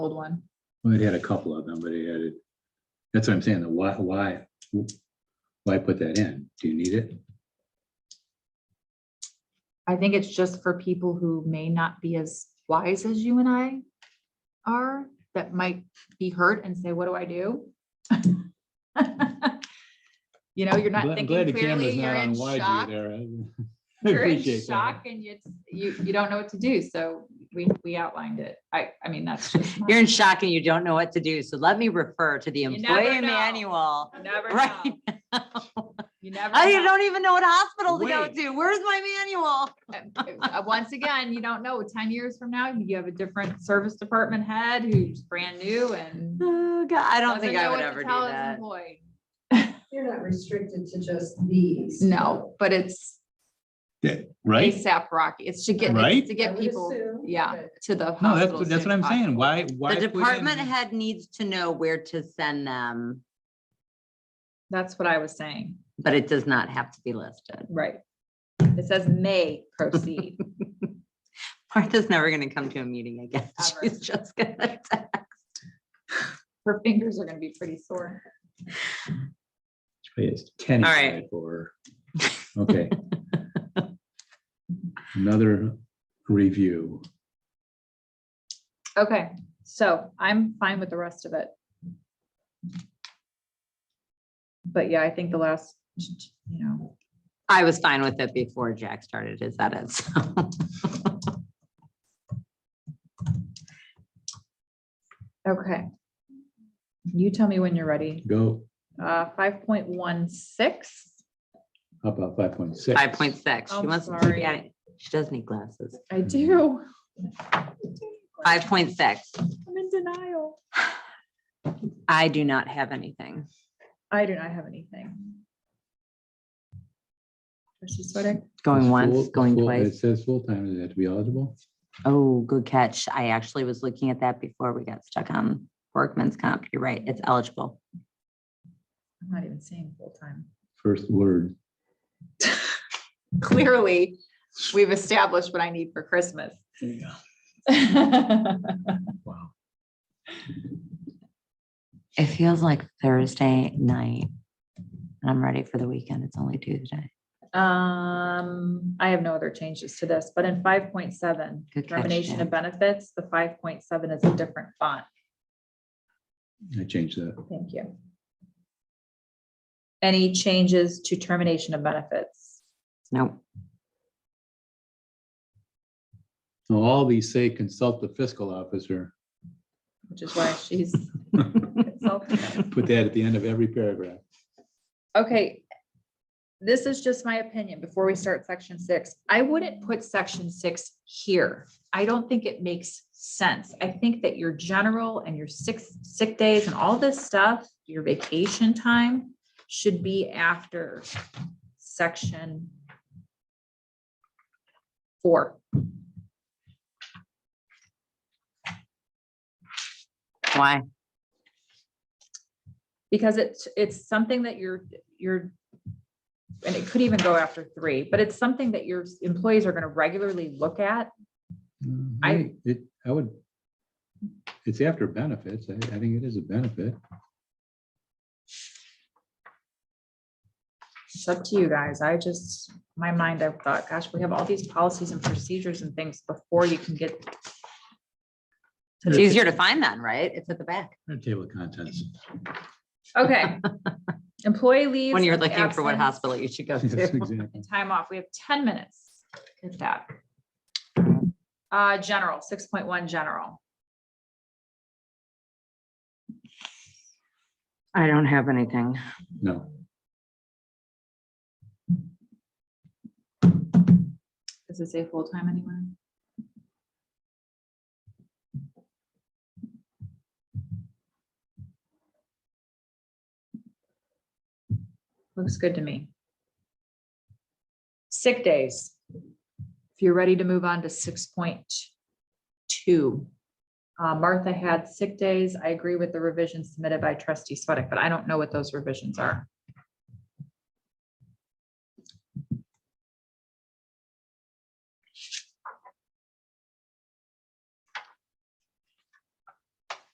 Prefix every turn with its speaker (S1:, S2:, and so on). S1: old one.
S2: Well, it had a couple of them, but it had it. That's what I'm saying, the why, why, why put that in? Do you need it?
S1: I think it's just for people who may not be as wise as you and I are, that might be hurt and say, what do I do? You know, you're not
S3: Glad glad
S1: thinking
S3: the camera's
S1: clearly,
S3: not
S1: you're in
S3: on wide
S1: shock.
S3: view there. I- I
S1: You're in
S3: appreciate
S1: shock
S3: that.
S1: and it's, you, you don't know what to do. So we, we outlined it. I, I mean, that's just. my-
S4: You're in shock and you don't know what to do. So let me refer to the
S1: You never
S4: employee
S1: know.
S4: manual.
S1: You Never
S4: Right.
S1: know. You never.
S4: I
S1: know.
S4: don't even know what hospital to go
S3: Wait.
S4: to. Where's my manual?
S1: uh, once again, you don't know, ten years from now, you have a different service department head who's brand new and.
S4: Oh, God, I don't think
S1: doesn't
S4: I
S1: know
S4: would
S1: what to
S4: ever do
S1: tell his
S4: that.
S1: employee.
S5: You're not restricted to just these.
S1: No, but it's
S3: Right?
S1: ASAP Rocky. It's to get,
S3: Right?
S1: it's to get
S5: I would
S1: people,
S5: assume
S1: yeah,
S5: that-
S1: to the.
S2: No,
S1: hospital
S2: that's,
S1: as
S2: that's
S1: soon
S2: what I'm
S1: as
S2: saying.
S1: possible.
S2: Why, why?
S4: The
S2: put in-
S4: department head needs to know where to send them,
S1: That's what I was saying,
S4: but it does not have to be listed.
S1: right. It says may proceed.
S4: Martha's never gonna come to a meeting again.
S1: Ever.
S4: She's just gonna.
S1: Her fingers are gonna be pretty sore.
S2: It's ten.
S4: All right.
S2: Or, okay. Another review.
S1: Okay, so I'm fine with the rest of it. But yeah, I think the last, you know,
S4: I was fine with it before Jack started his edits. so.
S1: Okay. You tell me when you're ready.
S2: Go
S1: Uh, five point one six.
S2: up about five point six.
S4: Five point six. She
S1: I'm
S4: wants to
S1: sorry.
S4: keep at it. She does need glasses.
S1: I
S4: Mm-hmm.
S1: do.
S4: Five point six.
S1: I'm in denial.
S4: I do not have anything.
S1: I do not have anything. Trustee Swedick?
S4: Going once,
S2: Full-
S4: going
S2: full- It
S4: twice.
S2: says full-time, does it have to be eligible?
S4: Oh, good catch. I actually was looking at that before we got stuck on workman's comp. You're right. It's eligible.
S1: I'm not even seeing full time.
S2: First word.
S1: Clearly, we've established what I need for Christmas.
S2: Yeah. Wow.
S4: It feels like Thursday night. And I'm ready for the weekend. It's only Tuesday.
S1: Um, I have no other changes to this, but in five point seven,
S4: Good catch,
S1: termination
S4: Jen.
S1: of benefits, the five point seven is a different font.
S2: I changed that.
S1: Thank you. Any changes to termination of benefits?
S4: No,
S2: So All these say consult the fiscal officer.
S1: Which is why she's. consulting.
S2: Put that at the end of every paragraph.
S1: Okay. This is just my opinion before we start section six. I wouldn't put section six here. I don't think it makes sense. I think that your general and your six sick days and all this stuff, your vacation time should be after section four.
S4: why?
S1: because it's, it's something that you're, you're, and it could even go after three, but it's something that your employees are gonna regularly look at.
S2: Mm,
S1: I-
S2: think It, I would. It's after benefits. I, I think it is a benefit.
S1: It's up to you guys. I just, my mind, I thought, gosh, we have all these policies and procedures and things before you can get.
S4: It's easier to find then, right? It's at the back.
S2: Our Table of contents.
S1: Okay. Employee leaves.
S4: When you're
S1: and
S4: looking for what
S1: absence
S4: hospital you should go
S2: Yes,
S4: to.
S2: exactly.
S1: And time off. We have ten minutes. Get that.
S4: Mm.
S1: Uh, general, six point one, general.
S4: I don't have anything.
S2: No,
S1: Does it say full-time anywhere? Looks good to me. Sick days. If you're ready to move on to six point two. Uh, Martha had sick days. I agree with the revisions submitted by trustee Sweattick, but I don't know what those revisions are.